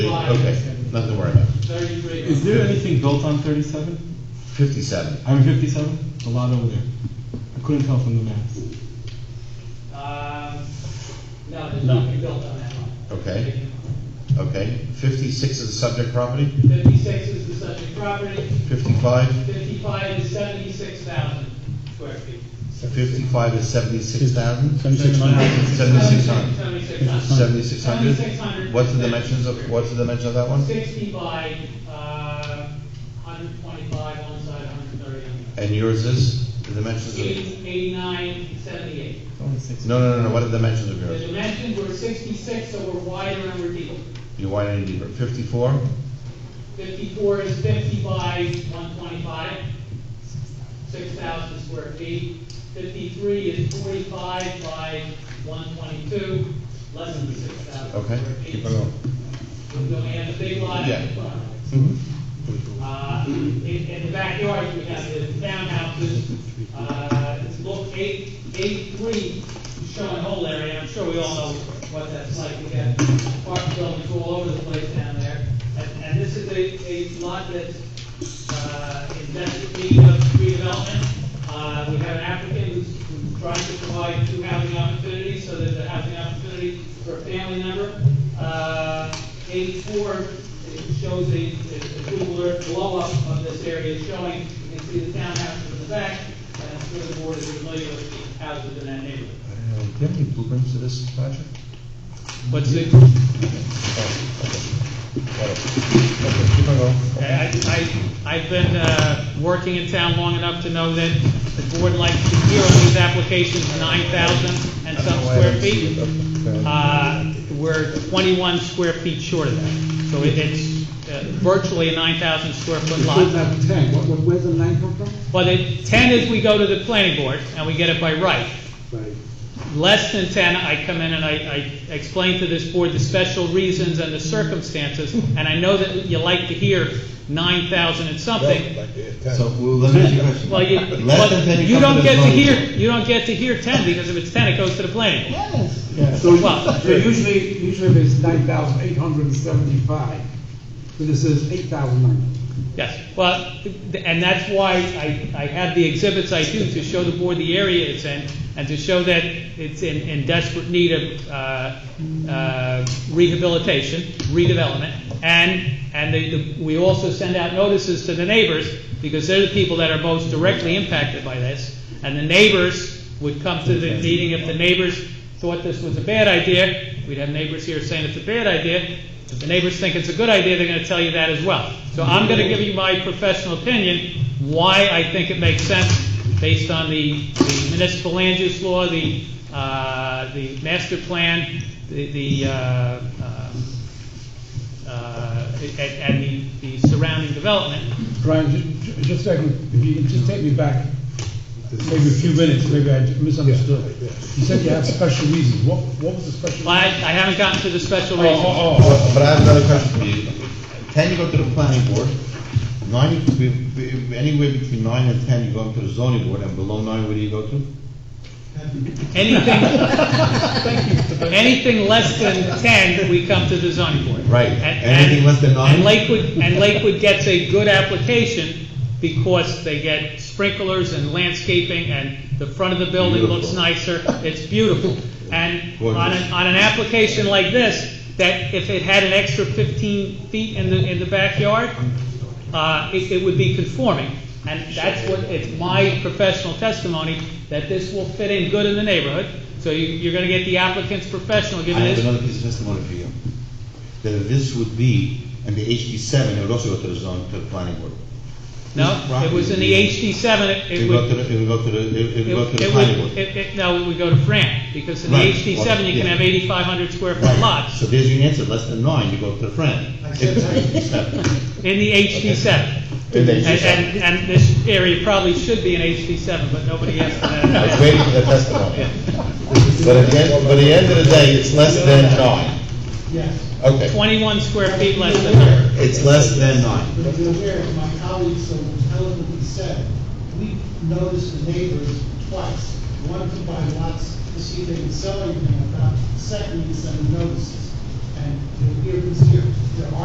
Okay, nothing to worry about. Thirty-three. Is there anything built on 37? Fifty-seven. I mean 57? A lot over there. I couldn't tell from the maps. Um, no, there's No. nothing built on that one. Okay. Okay, fifty-six is the subject property, Fifty-six is the subject property, fifty-five? fifty-five is seventy-six thousand square feet. Fifty-five is seventy-six thousand? Seventy-six hundred. Seventy-six hundred. Seventy-six hundred. Seventy-six hundred? Seventy-six hundred. What's the dimensions of, what's the dimension of that one? Sixty by, uh, hundred twenty-five on one side, hundred thirty on the other. And yours is, the dimensions of? Eighty- Eighty-nine, seventy-eight. No, no, no, no, what are the dimensions of The yours? dimensions were sixty-six, so we're wider and we're deeper. You want any deeper, fifty-four? Fifty-four is fifty by one twenty-five, six thousand square feet. Fifty-three is forty-five by one twenty-two, less than six thousand Okay, square keep it feet. on. We only have the big lot Yeah. in front. Uh, in, in the backyard, we have the townhouses, uh, it's look eight, eight-three, showing the whole area, I'm sure we all know what that's like, we got apartment buildings all over the place down there, and, and this is a, a lot that's, uh, in desperate need of redevelopment. Uh, we have an applicant who's, who's trying to provide two housing opportunities, so there's a housing opportunity for a family member. Uh, eight-four it shows a, a Google Earth blow-up of this area showing, you can see the townhouses in the back, and I'm sure the board is familiar with the houses in that neighborhood. Uh, Do you have any blueprints to this project? What's the, Okay, keep it on. I, I, I've been, uh, working in town long enough to know that the board likes to hear on these applications nine thousand and some square feet. Uh, we're twenty-one square feet short of that, so it- it's uh, virtually a nine thousand square foot lot. ten, what, what- where's the nine come from? But it, ten is we go to the planning board and we get it by right. Right. Less than ten, I come in and I, I explain to this board the special reasons and the circumstances, and I know that you like to hear nine thousand and something. So, well, let me ask you a question. Well, you, Less than 10, but you you come don't the get to zoning hear, board. you don't get to hear ten, because if it's ten, it goes to the planning board. So, Well- so usually, usually if it's nine thousand eight hundred and seventy-five, so this is eight thousand nine. Yes, well, and that's why I, I have the exhibits I do to show the board the area it's in and to show that it's in, in desperate need of, uh, uh, rehabilitation, redevelopment. And, and the, the, we also send out notices to the neighbors because they're the people that are most directly impacted by this. And the neighbors would come to the meeting if the neighbors thought this was a bad idea. We'd have neighbors here saying it's a bad idea. If the neighbors think it's a good idea, they're gonna tell you that as well. So I'm gonna give you my professional opinion, why I think it makes sense, based on the the municipal land use law, the, uh, the master plan, the, the, uh, um, uh, and, and the, the surrounding development. Brian, ju- ju- just a second, if you can just take me back, maybe a few minutes, maybe I misunderstood. You said you have special reasons, what, what was the special? I, I haven't gotten to the special Oh, reasons. oh, oh, But but I have another question for you. Ten, you go to the planning board. Nine, you- be- be- anywhere between nine and ten, you go up to the zoning board, and below nine, where do you go to? Anything, anything less than ten, we come to the zoning board. Right. And- Anything less than nine? And Lakewood, and Lakewood gets a good application because they get sprinklers and landscaping and the front of the building looks Beautiful. nicer. It's beautiful. And on Gorgeous. an, on an application like this, that if it had an extra fifteen feet in the, in the backyard, uh, it, it would be conforming. And that's what, it's my professional testimony that this will fit in good in the neighborhood. So you, you're gonna get the applicant's professional I giving have this. another piece of testimony for you. That if this would be, in the HD seven, it would also go to the zone, to the planning board. No, it was in the HD seven, It it it would go would, to the, it would go to the, it it It would go to the it planning would, board. it, it, no, it would go to Fran, because in the Right. HD seven, you can Yeah. have eighty-five hundred square foot Right. lots, So there's your answer, less than nine, you go to the friend. in the HD seven. In the And, HD7. and, and this area probably should be an HD seven, but nobody asked for I was that. waiting for the testimony. But at the end, but at the end of the day, it's less than nine. Yes, Okay, Twenty-one square feet less than her. it's less than nine. but if you're aware, as my colleague so eloquently said, we noticed the neighbors twice. One to buy lots to see if they can sell anything about, second, we sent them notices. And the ear was here. There are